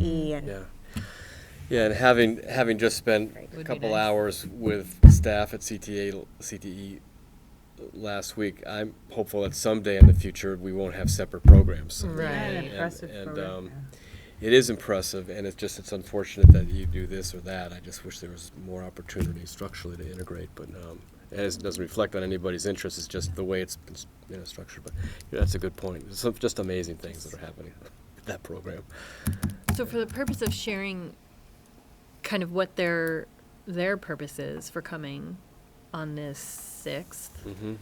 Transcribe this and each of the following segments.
E good. Yeah. Yeah, and having, having just spent Right. a Would be couple nice. hours with staff at CTA, l- CTE E last week, I'm hopeful that someday in the future, we won't have separate programs. Right. Yeah, an And- impressive and, program, um, yeah. It is impressive, and it's just, it's unfortunate that you do this or that. I just wish there was more opportunity structurally to integrate, but, um, and it doesn't reflect on anybody's interest, it's just the way it's, been s- you know, structured, but, yeah, that's a good point. There's Some, just amazing things that are happening with that program. So for the purpose of sharing kind of what their their purpose is for coming on this sixth, Mm-hmm.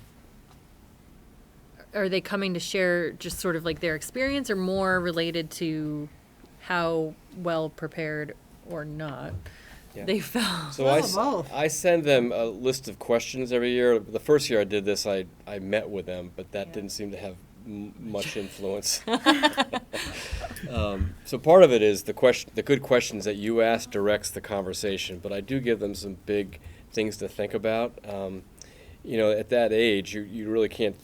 are they coming to share just sort of like their experience or more related to how well prepared or not Yeah. they felt? So I, Well, s- both. I send them a list of questions every year. The first year I did this, I, I met with them, but that Yeah. didn't seem to have m- much influence. um, so part of it is the question, the good questions that you ask directs the conversation, but I do give them some big things to think about. Um, you know, at that age, you, you really can't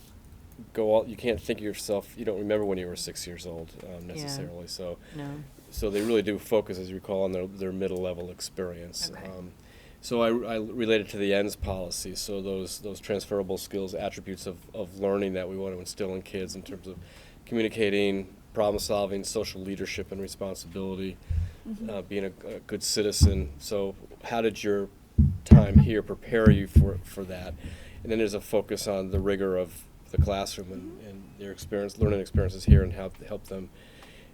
go all, you can't think of yourself, you don't remember when you were six years old um, Yeah. necessarily. So no. so they really do focus, as you recall, on their, their middle level experience. Okay. Um, so I, I related to the ends policy. So those those transferable skills, attributes of, of learning that we want to instill in kids in terms of communicating, problem solving, social leadership and responsibility, uh, being a, a good citizen. So how did your time here prepare you for for that? And then there's a focus on the rigor of the classroom and, and their experience, learning experiences here, and how to help them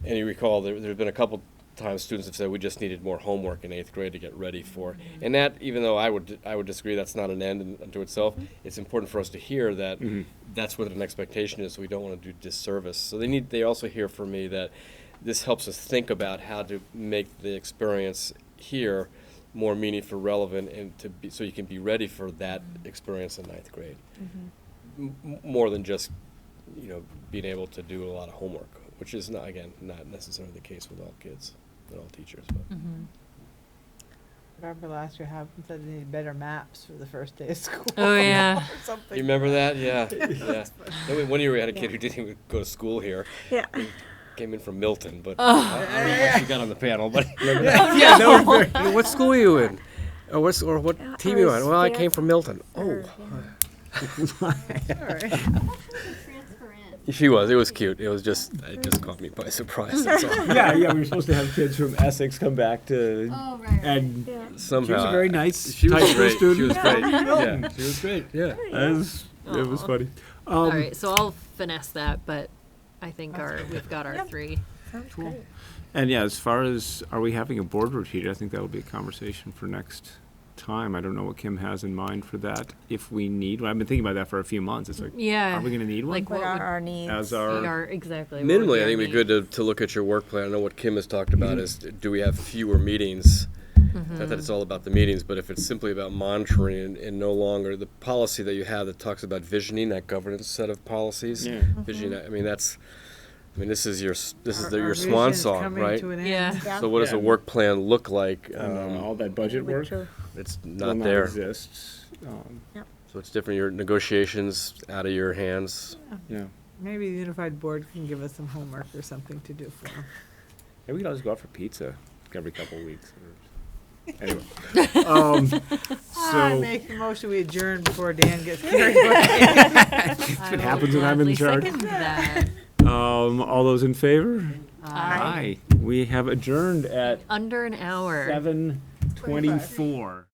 and you recall, there, there've been a couple times students have said, we just needed more homework in eighth grade to get ready for. And that, even though I would, I would disagree, that's not an end in- unto itself, it's important for us to hear that that's what an expectation is, we don't want to do disservice. So they need, they also hear from me that this helps us think about how to make the experience here more meaningful, relevant, and to be, so you can be ready for that experience in ninth grade. M- m- more than just, you know, being able to do a lot of homework, which is not, again, not necessarily the case with all kids and all teachers, Mm. but. hmm Remember last year, Hopkins said they need better maps for the first day of school. Oh yeah. or something. You remember that? Yeah, yeah. Then we- One year we had a kid who didn't even go to school here, Yeah. came in from Milton, Oh. but I I don't know how she got on the panel, but. Remember that? Yeah, no. What school were you in? Or what, or what Yeah, team you Uh, I on? was Well, I came there. from Milton. Oh. She was, it was cute. It was just, it just caught me by surprise, that's all. yeah, yeah, we were supposed to have kids from Essex come back to, Oh. and Yeah. Somehow. Uh, she was a very nice, She was type A great. student. She was great. Yeah. She was great. Yeah, There it was, it was funny. All right. So I'll finesse that, but I think our we've got our three. Sounds great. And yeah, as far as are we having a board retreat, I think that will be a conversation for next time. I don't know what Kim has in mind for that. If we need, one. I've been thinking about that for a few months. It's like, Yeah. are we going to need one? Like, What What are would- our needs? As our, Our- exactly. what would Minimally, I our think it'd be need? good to, to look at your work plan. I know what Kim has talked about is, Mm-hmm. do we have fewer meetings? Not that it's all about the meetings, but if it's simply about monitoring and, and no longer the policy that you have that talks about visioning, that governance set of policies. Yeah. Visioning, I mean, that's, I mean, this is your, s- this is Our- the- our your swan vision's song, coming right? to an end. Yeah. So what does a Yeah. work plan look like? uh, um, Um, all that budget work Which are- it's will not there. Exists. Um, So it's different, your negotiations out of your hands. yeah. Maybe the unified board can give us some homework or something to do for them. Maybe we could always go out for pizza every couple of weeks. Or, anyway. um, Ah, I so make the motion we adjourn before Dan gets carried away. That's what happens when I'm in charge. That. um, all those in favor? Aye. We have adjourned at Under an hour. seven twenty-four.